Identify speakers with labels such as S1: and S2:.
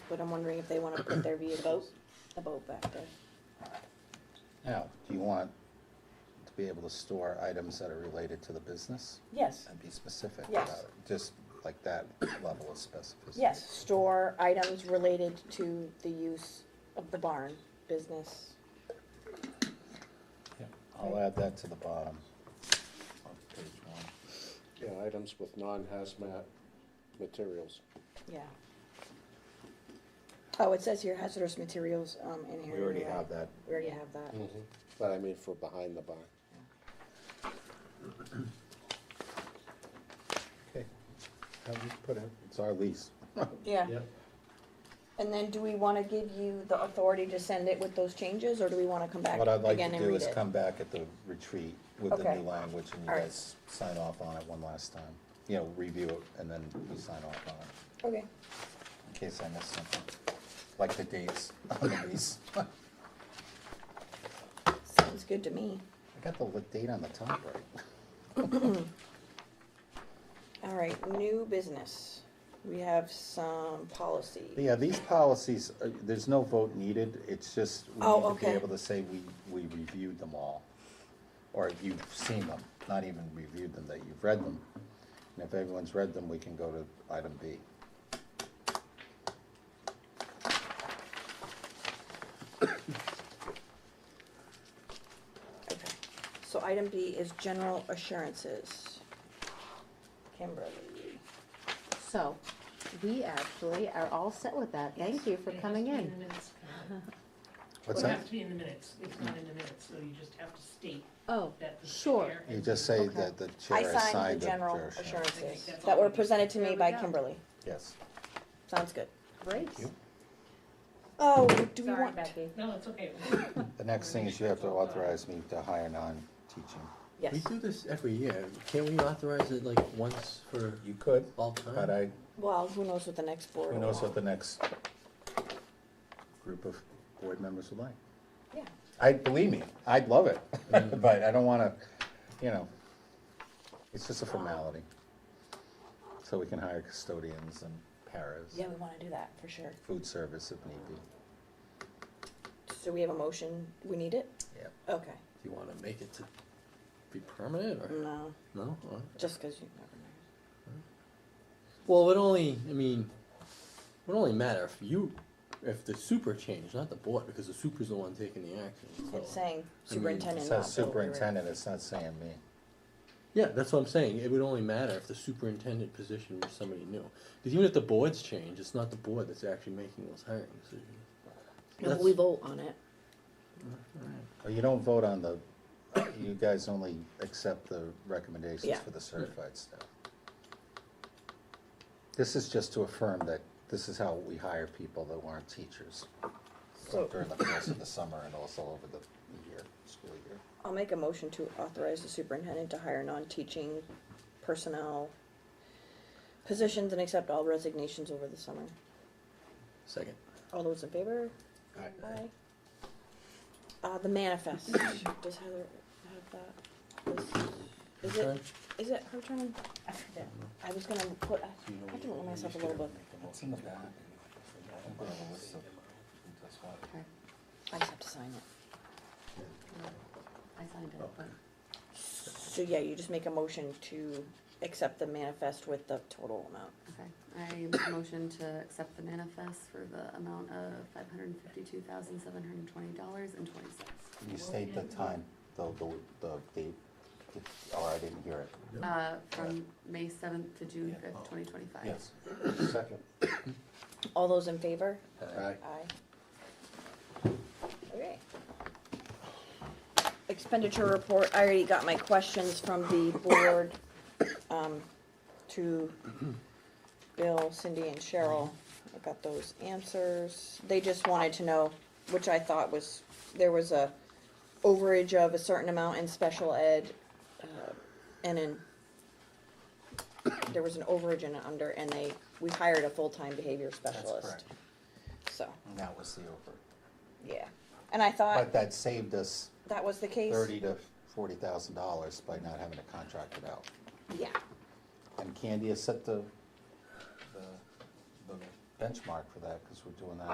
S1: but I'm wondering if they wanna put their vehicles, the boat back there.
S2: Now, do you want to be able to store items that are related to the business?
S3: Yes,
S2: And be specific about
S3: Yes.
S2: it, just like that level of specificity?
S3: yes,
S1: Store items related to the use of the barn business.
S2: I'll add that to the bottom of page one.
S4: Yeah, items with non-hazmat materials.
S1: Yeah. Oh, it says here hazardous materials, um, in here.
S2: We already
S1: you're right.
S2: have that.
S1: We already have that.
S4: But I mean for behind the barn.
S2: Okay. How do you put it? It's our lease.
S1: Yeah.
S5: Yep.
S1: And then do we wanna give you the authority to send it with those changes, or do we wanna come back
S2: What I'd like
S1: again
S2: to
S1: and
S2: do
S1: read
S2: is
S1: it?
S2: come back at the retreat with the
S1: Okay.
S2: new language and you
S1: All right.
S2: guys sign off on it one last time. You know, review it and then we sign off on it,
S1: Okay,
S2: in case I missed something, like the dates on the lease. I
S1: sounds good to me.
S2: got the li- date on the top right.
S1: All right, new business. We have some policy.
S2: Yeah, these policies, uh, there's no vote needed, it's just, we
S1: Oh,
S2: need to be
S1: okay.
S2: able to say we, we reviewed them all. Or you've seen them, not even reviewed them, that you've read them. And if everyone's read them, we can go to item B.
S1: Okay. So item B is general assurances. Kimberly.
S6: So, we actually are all set with that. Thank you for
S7: It has
S6: coming
S7: to be
S6: in.
S7: the minutes.
S2: What's
S7: It
S2: that?
S7: has to be in the minutes, it's not in the minutes, so you just have to state
S6: Oh,
S7: that the
S6: Sure.
S7: chair.
S2: You just say
S6: Okay.
S2: that the
S1: I
S2: chair has
S1: signed
S2: signed
S1: the
S2: the
S1: general
S2: chair shall-
S1: assurances
S7: That's
S1: that
S7: all.
S1: were presented to me
S6: There we
S1: by
S6: go.
S1: Kimberly.
S2: Yes.
S1: Sounds good.
S6: great.
S2: you.
S1: Oh, do we
S6: Sorry,
S1: want,
S6: Becky.
S7: No, it's okay.
S2: The next thing is you have to authorize me to hire non-teaching.
S1: yes.
S5: We do this every year. Can't we authorize it like once for
S2: You could,
S5: all
S2: but
S5: time?
S2: I,
S1: Well, who knows what the next board
S2: who
S1: will
S2: knows
S1: want.
S2: what the next group of board members would like.
S1: Yeah.
S2: I, believe me, I'd love it, but I don't wanna, you know, it's just a formality. So we can hire custodians and paras,
S1: Yeah, we wanna do that for sure.
S2: food service if need be.
S1: So we have a motion. We need it?
S2: Yeah.
S1: Okay.
S5: Do you wanna make it to be permanent or?
S1: No,
S5: No? Alright.
S1: just cause you never know.
S5: Well, it would only, I mean, it would only matter if you, if the super changed, not the board, because the super's the one taking the action, so.
S1: It's saying
S5: I mean, it
S2: It
S1: superintendent, not
S2: says
S1: Bill O'Leary.
S2: superintendent, it's not saying me.
S5: Yeah, that's what I'm saying. It would only matter if the superintendent position was somebody new. Because even if the boards change, it's not the board that's actually making those hiring decisions.
S1: No,
S5: That's-
S1: we vote on it.
S2: Oh, You don't vote on the, you guys only accept the recommendations
S1: Yeah.
S2: for the certified staff. This is just to affirm that this is how we hire people that weren't teachers
S1: So-
S2: during the course of the summer and also over the year, school year.
S1: I'll make a motion to authorize the superintendent to hire non-teaching personnel positions and accept all resignations over the summer.
S5: Second.
S1: All those in favor? Aye. Uh, the manifest, does Heather have that? Is is
S5: Okay.
S1: it, is it her turn?
S7: I forget.
S1: I was gonna put, I can look myself a little book.
S2: It's in the back.
S6: Okay,
S1: I just have to sign it.
S6: I signed it, but
S1: So, yeah, you just make a motion to accept the manifest with the total amount.
S8: Okay, I make a motion to accept the manifest for the amount of five hundred and fifty-two thousand, seven hundred and twenty dollars and twenty cents.
S2: You state the time, the, the, the date, It's- or I didn't hear it.
S8: Uh, from May seventh to June fifth, twenty twenty-five.
S2: Second.
S1: All those in favor?
S2: Aye.
S1: Aye. Okay. Expenditure report, I already got my questions from the board, um, to Bill, Cindy, and Cheryl. I got those answers. They just wanted to know, which I thought was, there was a overage of a certain amount in special ed, uh, and in, there was an overage and an under, and they, we hired a full-time behavior specialist,
S2: correct.
S1: so.
S2: And that was the over.
S1: Yeah, and I thought
S2: But that saved us
S1: that was the case.
S2: thirty to forty thousand dollars by not having to contract it out.
S1: Yeah,
S2: And Candy has set the, the, the benchmark for that, because we're doing that